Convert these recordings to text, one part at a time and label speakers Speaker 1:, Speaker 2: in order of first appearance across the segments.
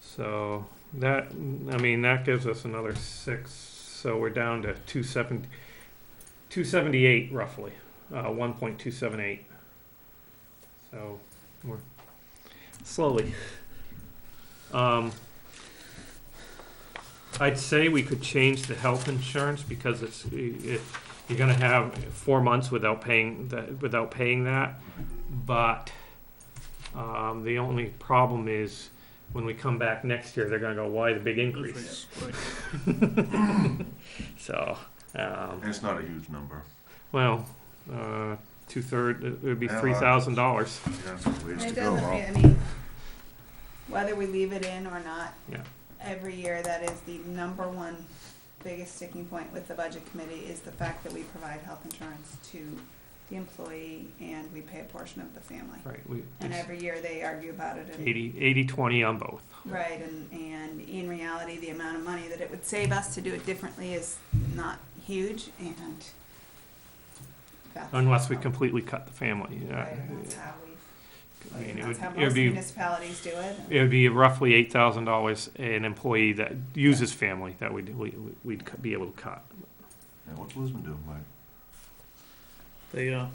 Speaker 1: So that, I mean, that gives us another six, so we're down to two seventy, two seventy-eight roughly, uh, one point two seven eight. So we're slowly. Um, I'd say we could change the health insurance because it's, it, you're gonna have four months without paying, the- without paying that. But, um, the only problem is when we come back next year, they're gonna go, why the big increase? So, um,
Speaker 2: And it's not a huge number.
Speaker 1: well, uh, two third, it would be
Speaker 2: Yeah,
Speaker 1: three thousand dollars.
Speaker 2: You got some ways to
Speaker 3: It
Speaker 2: go.
Speaker 3: doesn't,
Speaker 2: huh?
Speaker 3: re- I mean, whether we leave it in or not.
Speaker 1: Yeah.
Speaker 3: Every year, that is the number one biggest sticking point with the budget committee is the fact that we provide health insurance to the employee and we pay a portion of the family.
Speaker 1: Right, we,
Speaker 3: And every year, they argue about it and,
Speaker 1: eighty, eighty, twenty on both.
Speaker 3: right, and, and in reality, the amount of money that it would save us to do it differently is not huge and that's.
Speaker 1: Unless we
Speaker 3: how-
Speaker 1: completely cut the family, yeah.
Speaker 3: Right, and that's how we
Speaker 1: I mean, it would,
Speaker 3: That's how
Speaker 1: it would
Speaker 3: most
Speaker 1: be,
Speaker 3: municipalities do it.
Speaker 1: it would be roughly eight thousand dollars an employee that uses family that we'd, we, we'd cu- be able to cut.
Speaker 2: Yeah, what's Lisbon doing, Mike?
Speaker 4: They, uh,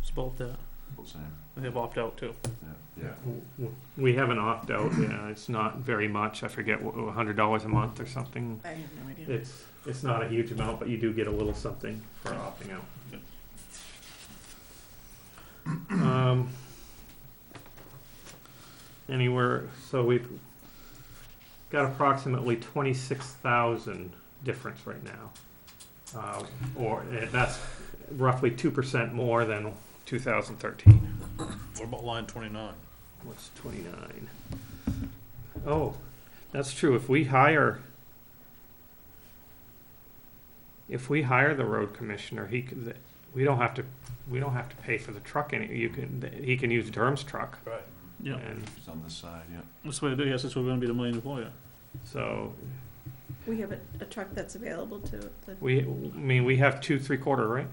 Speaker 4: it's about that.
Speaker 2: What's that?
Speaker 4: They have opt out too.
Speaker 2: Yeah, yeah.
Speaker 1: W- w- We have an opt-out, yeah, it's not very much, I forget, a hundred dollars a month or something.
Speaker 4: I have no idea.
Speaker 1: It's, it's not a huge amount, but you do get a little something for opting out. Um, Anywhere, so we've got approximately twenty-six thousand difference right now. Uh, Or, eh, that's roughly two percent more than two thousand thirteen.
Speaker 4: What about line twenty-nine?
Speaker 1: What's twenty-nine? Oh, that's true, if we hire, if we hire the road commissioner, he could, we don't have to, we don't have to pay for the truck any, you can, he can use Durham's truck.
Speaker 4: Right. Yeah,
Speaker 1: And
Speaker 2: It's on this side, yeah.
Speaker 4: that's what I do, yes, that's what we're gonna be the main employer.
Speaker 1: so,
Speaker 3: We have a, a truck that's available to the.
Speaker 1: we, I mean, we have two, three-quarter, right?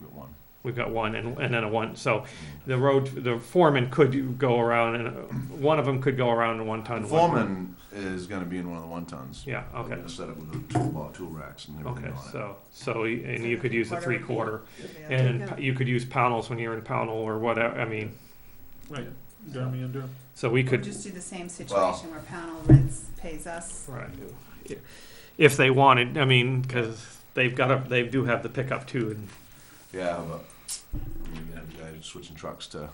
Speaker 2: We got one.
Speaker 1: We've got one and, and then a one, so the road, the foreman could go around and, uh, one of them could go around in one ton.
Speaker 2: The
Speaker 1: one-
Speaker 2: foreman is gonna be in one of the one tons.
Speaker 1: Yeah, okay.
Speaker 2: Set up with a tool, tool racks and everything
Speaker 1: Okay,
Speaker 2: on it.
Speaker 1: so, so, y- and you could use a
Speaker 3: Three-quarter.
Speaker 1: three-quarter, and p- you could use panels when you're in panel or whatever, I mean,
Speaker 4: Right, Durham and Durham.
Speaker 1: so we
Speaker 3: We'll
Speaker 1: could,
Speaker 3: just do the same
Speaker 2: Well-
Speaker 3: situation where Pownell rents, pays us.
Speaker 1: right, if they wanted, I mean, because they've got a, they do have the pickup too, and
Speaker 2: Yeah, but you're gonna have guys switching trucks to. What,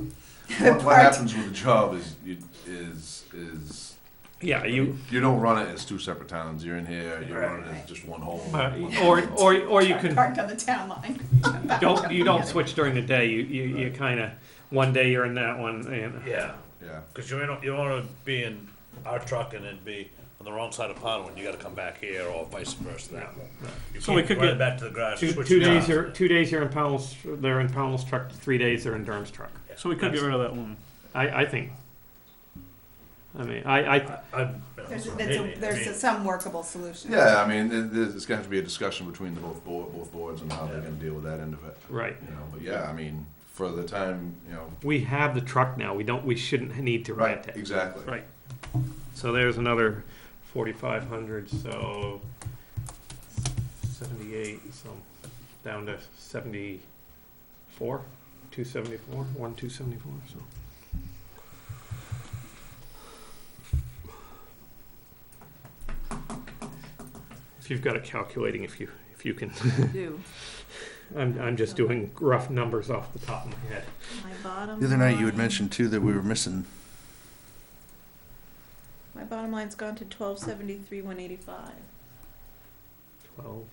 Speaker 2: what
Speaker 3: Part-
Speaker 2: happens with the job is you is is
Speaker 1: yeah, you,
Speaker 2: you don't run it as two separate towns. You're in here. You
Speaker 1: Right.
Speaker 2: run it as just one whole.
Speaker 1: uh,
Speaker 2: one
Speaker 1: or,
Speaker 2: whole.
Speaker 1: or, or you can,
Speaker 3: Parked on the town line.
Speaker 1: don't, you don't switch during the day, you, you, you kind of, one day you're in that one, and.
Speaker 5: Yeah,
Speaker 2: yeah.
Speaker 5: because you don't, you don't wanna be in our truck and then be on the wrong side of Pownell when you gotta come back here or vice versa that way. You
Speaker 1: So we
Speaker 5: can't
Speaker 1: could
Speaker 5: run
Speaker 1: get
Speaker 5: it Back to the garage.
Speaker 1: Two,
Speaker 5: switch
Speaker 1: two
Speaker 5: it
Speaker 1: days
Speaker 5: off.
Speaker 1: you're, two days you're in Powell's, they're in Powell's truck, three days they're in Durham's truck,
Speaker 4: So we could get rid of that one.
Speaker 1: I, I think. I mean, I, I,
Speaker 5: I- I- you know,
Speaker 3: There's, a-
Speaker 5: maybe,
Speaker 3: there's
Speaker 5: I
Speaker 3: a-
Speaker 5: mean,
Speaker 3: there's a- some workable solution.
Speaker 2: Yeah, I mean, it, there's, it's gonna have to be a discussion between the both board, both boards and how they're
Speaker 5: Yeah.
Speaker 2: gonna deal with that end of it.
Speaker 1: right.
Speaker 2: You know, but yeah, I mean, for the time, you know.
Speaker 1: We have the truck now, we don't, we shouldn't need to rent it.
Speaker 2: Exactly.
Speaker 1: Right. So there's another forty-five hundred, so seventy-eight, so down to seventy-four, two seventy-four, one two seventy-four, so. If you've got it calculating, if you, if you can,
Speaker 3: Do.
Speaker 1: I'm, I'm just doing rough numbers off the top of my head.
Speaker 3: My bottom.
Speaker 6: The other night you had mentioned too that we were missing,
Speaker 3: My bottom line's gone to twelve seventy-three, one eighty-five.
Speaker 1: Twelve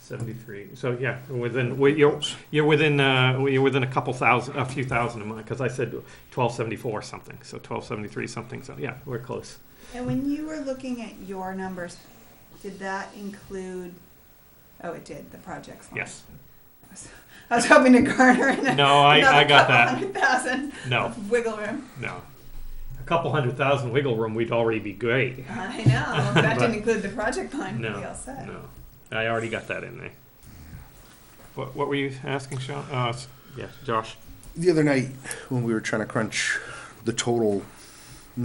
Speaker 1: seventy-three. So yeah, within wi- you're you're within uh, you're within a couple thousand, a few thousand a month. Because I said twelve seventy-four something. So twelve seventy-three something. So yeah, we're close.
Speaker 3: And when you were looking at your numbers, did that include, oh, it did, the projects line.
Speaker 1: Yes.
Speaker 3: I was hoping to garner in a-
Speaker 1: No, I, I
Speaker 3: another
Speaker 1: got
Speaker 3: couple
Speaker 1: that.
Speaker 3: hundred thousand
Speaker 1: No,
Speaker 3: of wiggle room.
Speaker 1: no. A couple hundred thousand wiggle room, we'd already be great.
Speaker 3: I know. That
Speaker 1: But-
Speaker 3: didn't include the project line.
Speaker 1: No,
Speaker 3: we all said.
Speaker 1: No, I already got that in there. What what were you asking, Sean? Uh, s- yeah, Josh.
Speaker 6: the other night when we were trying to crunch the total